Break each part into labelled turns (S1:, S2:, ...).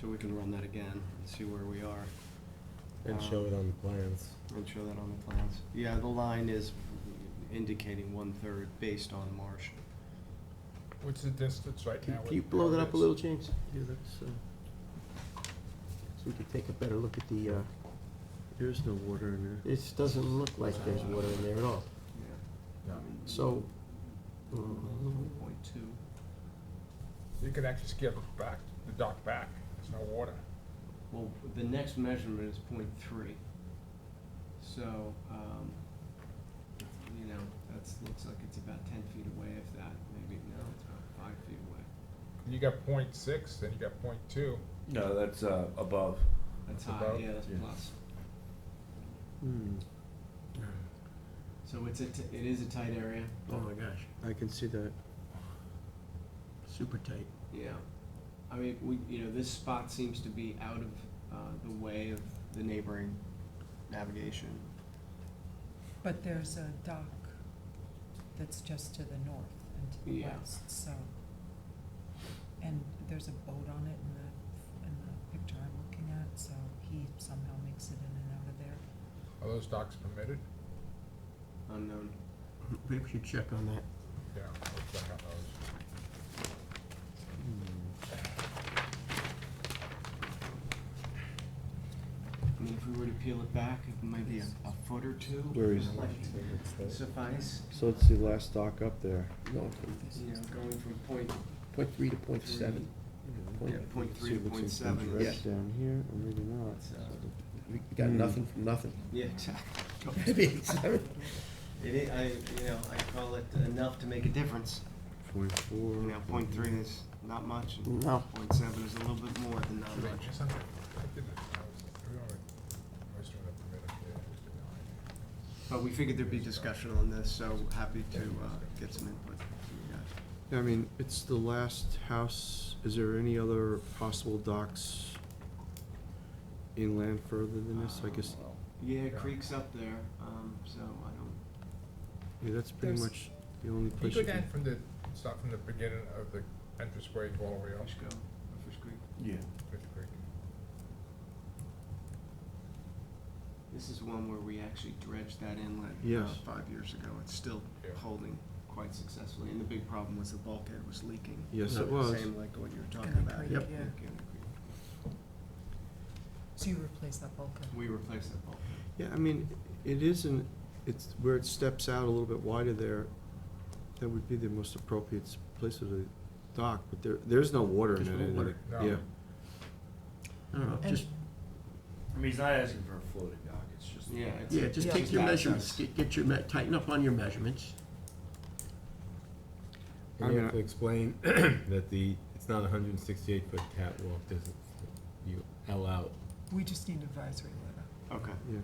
S1: So we can run that again and see where we are
S2: And show it on the plans.
S1: and show that on the plans. Yeah, the line is indicating one-third based on marsh.
S3: What's the distance right now?
S2: Can
S3: with
S2: can you blow
S3: where
S2: that
S3: it
S2: up a
S3: is?
S2: little, James? Yeah, that's, uh, so we could take a better look at the, uh,
S4: There's no water in there.
S2: this doesn't look like there's water in there at all. So,
S4: uh, Hmm.
S2: mm,
S1: Point two.
S3: You could actually scale it back, the dock back, there's no water.
S1: Well, the next measurement is point three. So, um, you know, that's, looks like it's about ten feet away if that, maybe, no, it's about five feet away.
S3: You got point six, then you got point two.
S5: No, that's uh, above.
S1: That's
S3: That's
S1: high,
S3: about-
S1: yeah, that's
S5: yeah.
S1: plus.
S4: Hmm,
S1: So it's a, t- it is a tight area.
S4: oh my gosh, I can see that. Super tight.
S1: Yeah. I mean, we, you know, this spot seems to be out of, uh, the way of the neighboring navigation.
S6: But there's a dock that's just to the north and to the
S1: Yeah.
S6: west, so. And there's a boat on it in the, in the picture I'm looking at, so he somehow makes it in and out of there.
S3: Are those docks permitted?
S1: Unknown.
S2: maybe we should check on that.
S3: Yeah, we'll check on those.
S1: I mean, if we were to peel it back, it might be a, a foot or two.
S4: Where is
S1: might Suffice,
S4: So it's the last dock up there.
S2: Going from
S1: you know, going from point,
S2: point three to point seven. Point-
S1: yeah, point three to
S4: See what's
S1: point
S4: in
S1: seven.
S4: Pinterest
S1: is-
S4: Down here, or maybe not.
S1: It's, uh,
S2: We got nothing from nothing.
S1: Yeah, exactly.
S2: Maybe seven.
S1: It is, I, you know, I call it enough to make a difference.
S4: Point four.
S1: You know, point three is not much, and
S2: No.
S1: point seven is a little bit more than not
S3: Wait,
S1: much.
S3: just something- I didn't- I was- we already- I was doing a permitted, yeah, I was doing it.
S1: But we figured there'd be discussion on this, so happy to uh, get some input from you guys.
S4: I mean, it's the last house. Is there any other possible docks inland further than this? I guess,
S1: Yeah, creek's up there, um, so I don't,
S4: yeah, that's pretty
S6: There's-
S4: much the only
S3: You
S4: place
S3: go
S4: you
S3: down
S4: can.
S3: from the, start from the beginning of the entranceway all the way up
S1: Fish Go, or Fish Creek.
S5: Yeah.
S3: to Fish Creek.
S1: This is one where we actually dredged that inlet uh,
S4: Yes.
S1: five years ago. It's still
S3: Yeah.
S1: holding quite successfully, and the big problem was the bulkhead was leaking.
S4: Yes, it
S1: Same
S4: was.
S1: like what you were talking
S6: Gunner
S1: about.
S6: Creek,
S1: Yep.
S6: yeah.
S1: leak in the creek.
S6: So you replace that bulkhead.
S1: We replaced that bulkhead.
S4: Yeah, I mean, it isn't, it's where it steps out a little bit wider there. That would be the most appropriate s- place of the dock, but there, there's no water in
S2: There's
S4: it.
S2: no
S4: and
S2: water.
S4: it-
S3: No.
S4: Yeah.
S2: I don't know,
S6: And-
S2: just,
S5: I mean, he's not asking for a floating dock, it's just.
S1: Yeah, it's-
S2: yeah, just
S6: Yeah.
S2: take your
S1: Just
S2: measurements,
S1: access.
S2: get, get your, me- tighten up on your measurements.
S4: I
S7: And you
S4: mean,
S7: have to
S4: I-
S7: explain that the, it's not a hundred and sixty-eight foot catwalk, doesn't, you L out.
S6: We just need advisory letter.
S1: Okay.
S4: Yeah.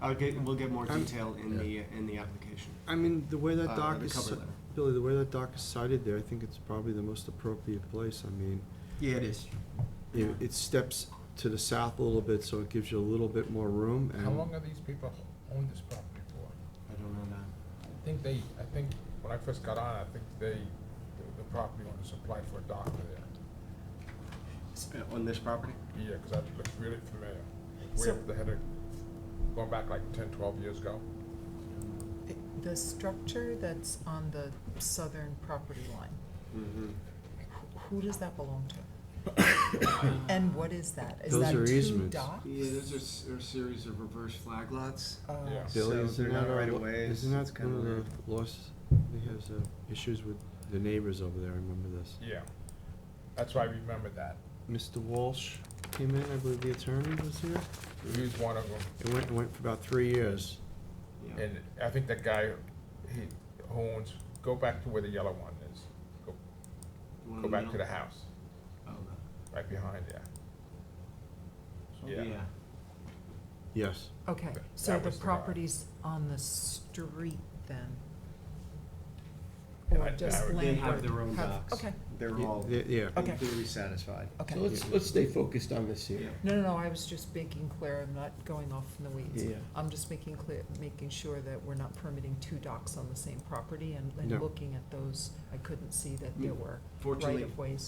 S1: I'll get, we'll get more
S4: I'm-
S1: detail in the, in the application.
S4: I mean, the way
S1: Uh,
S4: that dock
S1: the
S4: is,
S1: cover
S4: si-
S1: letter.
S4: Billy, the way that dock is sited there, I think it's probably the most appropriate place. I mean,
S2: Yeah, it is.
S4: it, it steps to the south a little bit, so it gives you a little bit more room
S3: How
S2: Mm-hmm.
S4: and
S3: long have these people owned this property for?
S1: I don't know that.
S3: I think they, I think, when I first got on, I think they, the- the property owners applied for a dock there.
S1: S- uh, On this property?
S3: Yeah, 'cause that looks really familiar. Way
S6: So-
S3: up the header, going back like 10, 12 years ago.
S6: The structure that's on the southern property line,
S1: Mm-hmm.
S6: who does that belong to? And what is that? Is
S4: Those
S6: that
S4: are
S6: two
S4: easements.
S6: docks?
S1: Yeah, those are, s- are a series of reverse flag lots.
S6: Oh.
S3: Yeah.
S4: Billy,
S1: So
S4: isn't
S1: they're not
S4: that a
S1: right
S4: lo-
S1: of ways,
S4: Isn't
S1: it's
S4: that
S1: kinda
S4: one of
S1: weird.
S4: the loss, he has, uh, issues with the neighbors over there, I remember this.
S3: Yeah. That's why I remember that.
S4: Mr. Walsh came in, I believe the attorney was here,
S3: He was one of them.
S4: it went, it went for about three years.
S1: Yeah.
S3: And I think that guy, he owns, go back to where the yellow one is. Go,
S1: One in
S3: go back to
S1: middle.
S3: the house,
S1: Oh, no.
S3: right behind there. Yeah.
S1: Yeah.
S4: Yes,
S6: Okay,
S3: Th-
S6: so
S3: that
S6: the
S3: was the vibe.
S6: property's on the street then?
S3: And
S6: Or
S3: I-
S6: just
S3: I-
S6: landward?
S1: They have their own
S6: Have-
S1: docks.
S6: Okay,
S1: They're
S4: Y-
S1: all,
S4: yeah, yeah.
S1: in
S6: Okay.
S1: theory, satisfied.
S6: okay.
S2: So let's, let's stay focused on this here.
S1: Yeah.
S6: No, no, no, I was just making clear, I'm not going off in the weeds.
S2: Yeah.
S6: I'm just making clear, making sure that we're not permitting two docks on the same property and,
S4: No.
S3: Mm.
S6: and looking at those, I couldn't see that there were
S1: Fortunately,
S6: right-of-ways.